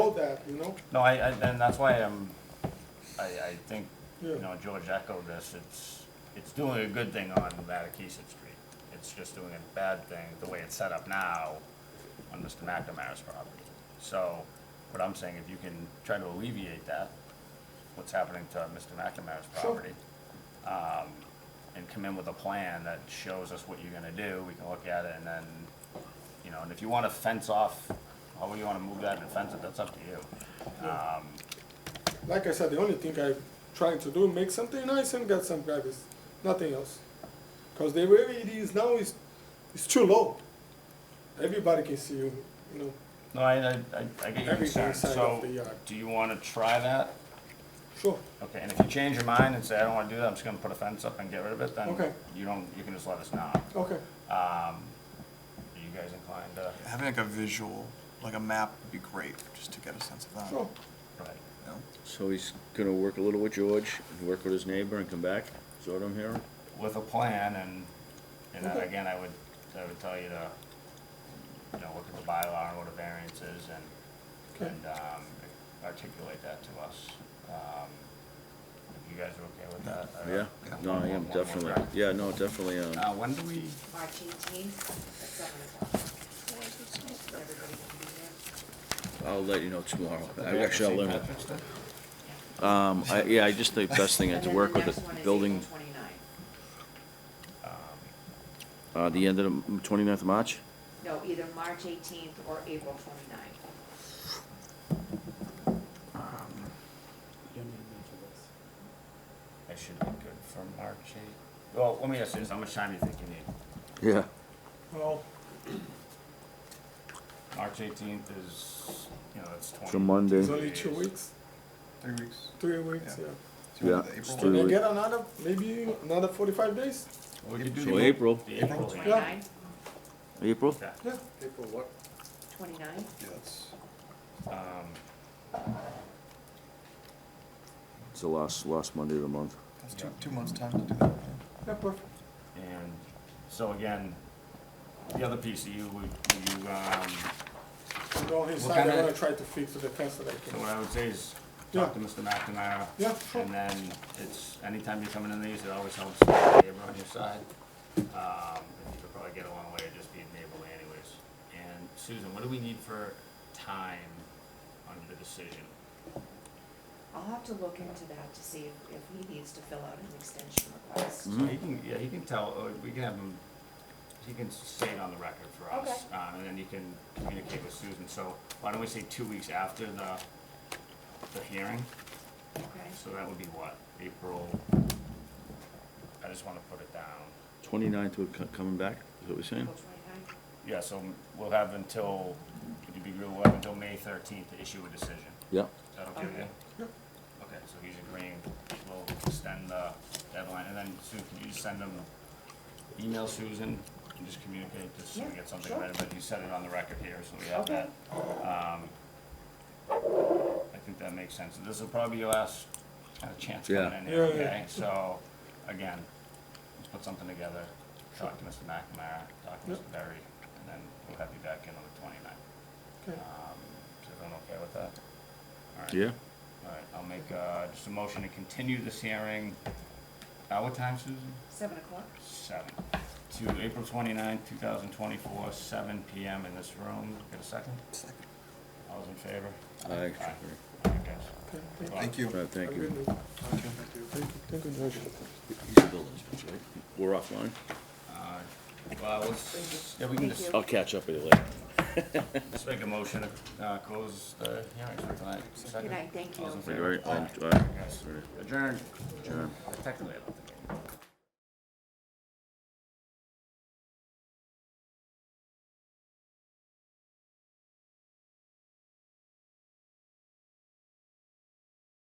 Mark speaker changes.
Speaker 1: that, you know?
Speaker 2: No, I, I, and that's why I'm, I, I think, you
Speaker 1: Yeah.
Speaker 2: know, George echoed this, it's, it's doing a good thing on Mattokeesit Street. It's just doing a bad thing, the way it's set up now, on Mr. McNamara's property. So, what I'm saying, if you can try to alleviate that, what's happening to Mr. McNamara's
Speaker 1: Sure.
Speaker 2: property, um, and come in with a plan that shows us what you're gonna do, we can look at it, and then, you know, and if you wanna fence off, however you wanna move that and fence it, that's up to you. Um,
Speaker 1: Like I said, the only thing I'm trying to do, make something nice and get some privacy, nothing else. Because the way it is now is, is too low. Everybody can see you, you know,
Speaker 2: No, I, I, I- I get your
Speaker 1: Everything
Speaker 2: concern,
Speaker 1: inside of
Speaker 2: Mm-hmm. so,
Speaker 1: the uh, yard.
Speaker 2: do you wanna try that?
Speaker 1: sure.
Speaker 2: Okay, and if you change your mind and say, I don't wanna do that, I'm just gonna put a fence up and get rid of it, then
Speaker 1: Okay.
Speaker 2: you don't, you can just let us know.
Speaker 1: Okay,
Speaker 2: Um, are you guys inclined to,
Speaker 3: Having like a visual, like a map would be great, just to get a sense of that.
Speaker 1: sure.
Speaker 2: right,
Speaker 3: you know?
Speaker 4: So he's gonna work a little with George, and work with his neighbor and come back, is that what I'm hearing?
Speaker 2: with a plan and, and then
Speaker 1: Okay.
Speaker 2: again, I would, I would tell you to, you know, look at the bylaw and what a variance is and,
Speaker 1: Okay.
Speaker 2: and, um, articulate that to us. Um, If you guys are okay with that? I don't-
Speaker 4: Uh, Yeah, no, I am,
Speaker 2: One more
Speaker 4: definitely,
Speaker 2: time.
Speaker 4: yeah, no, definitely, um,
Speaker 2: Uh, when do we?
Speaker 5: March eighteenth at seven o'clock. Everybody can be there.
Speaker 4: I'll let you know tomorrow, I actually, I'll learn it. Um, I, yeah, I just think best thing is to work with the building,
Speaker 2: Um,
Speaker 4: uh, the end of the twenty-ninth of March?
Speaker 5: No, either March eighteenth or April twenty-ninth.
Speaker 1: Um,
Speaker 2: I should be good for March eighth. Well, let me ask you this, how much time do you think you need?
Speaker 4: Yeah.
Speaker 1: Well,
Speaker 2: March eighteenth is, you know, it's twenty.
Speaker 4: It's a Monday.
Speaker 1: it's only two weeks,
Speaker 3: Three weeks.
Speaker 1: three weeks,
Speaker 3: Yeah.
Speaker 1: yeah.
Speaker 3: Do you
Speaker 4: Yeah,
Speaker 3: want the
Speaker 4: it's
Speaker 3: April
Speaker 4: three
Speaker 1: Can I
Speaker 3: one?
Speaker 4: weeks.
Speaker 1: get another, maybe another forty-five days?
Speaker 3: We could do
Speaker 4: So
Speaker 3: the April-
Speaker 4: April,
Speaker 2: The April
Speaker 3: Yeah.
Speaker 2: twenty.
Speaker 5: Twenty-nine,
Speaker 4: April?
Speaker 2: Okay.
Speaker 1: Yeah.
Speaker 6: April what?
Speaker 5: twenty-nine?
Speaker 3: Yeah, that's-
Speaker 2: Um,
Speaker 4: It's the last, last Monday of the month.
Speaker 3: That's two, two months' time to do that.
Speaker 1: Yeah, perfect.
Speaker 2: and so again, the other piece of you, would, you, um,
Speaker 1: I'm going inside, I'm gonna try to fix the fence that I
Speaker 2: So
Speaker 1: can.
Speaker 2: what I would say is, talk to Mr. McNamara.
Speaker 1: Yeah, sure.
Speaker 2: And then it's, anytime you're coming in these, it always helps to have a neighbor on your side. Um, and you could probably get a long way of just being neighborly anyways. And Susan, what do we need for time on the decision?
Speaker 5: I'll have to look into that to see if, if he needs to fill out an extension request.
Speaker 4: Mm-hmm.
Speaker 2: So he can, yeah, he can tell, uh, we can have him, he can say it on the record for us. Um, and then you can communicate with Susan, so why don't we say two weeks after the, the hearing?
Speaker 5: Okay,
Speaker 2: So that would be what, April, I just wanna put it down.
Speaker 4: Twenty-ninth, we're co- coming back, is what we're saying?
Speaker 5: April twenty-nine?
Speaker 2: Yeah, so we'll have until, it'd be, we'll have until May thirteenth to issue a decision.
Speaker 4: Yeah.
Speaker 2: Is that okay with you?
Speaker 5: Okay.
Speaker 2: Okay, so he's agreeing, we'll extend the deadline, and then Sue, can you just send him, email Susan, and just communicate this, so we
Speaker 5: Yeah,
Speaker 2: get something
Speaker 5: sure.
Speaker 2: ready, but you set it on the record here, so we have
Speaker 5: Okay.
Speaker 2: that. Um, I think that makes sense, this will probably be your last kind of chance coming
Speaker 4: Yeah.
Speaker 2: in here,
Speaker 1: Yeah, yeah.
Speaker 2: okay? So, again, let's put something together, talk to Mr. McNamara, talk to
Speaker 1: Yep.
Speaker 2: Mr. Berry, and then we'll have you back in on the twenty-ninth.
Speaker 1: Okay.
Speaker 2: Um, is everyone okay with that? All right.
Speaker 4: Yeah,
Speaker 2: All right, I'll make, uh, just a motion to continue this hearing, uh, what time, Susan?
Speaker 5: Seven o'clock?
Speaker 2: Seven, to April twenty-ninth, two thousand twenty-four, seven PM in this room. Get a second?
Speaker 3: Second.
Speaker 2: All those in favor?
Speaker 4: I,
Speaker 2: Aye. All right, guys.
Speaker 1: Okay, thank you.
Speaker 3: Thank you.
Speaker 4: Right, thank
Speaker 1: Have a
Speaker 4: you.
Speaker 1: good night. Thank you, thank you, George.
Speaker 4: He's a building inspector, right? We're offline?
Speaker 2: Uh, Well, let's, yeah, we can
Speaker 5: Thank
Speaker 2: just,
Speaker 5: you.
Speaker 4: I'll catch up with you later.
Speaker 2: let's make a motion to, uh, close the hearing for tonight. Second?
Speaker 5: Good night, thank you.
Speaker 2: All those in
Speaker 4: Right,
Speaker 2: favor?
Speaker 4: right, um,
Speaker 2: Aye.
Speaker 4: all right,
Speaker 2: Guys,
Speaker 4: all right.
Speaker 2: Adjourn.
Speaker 4: Adjourn.
Speaker 2: Technically, I don't think. I can.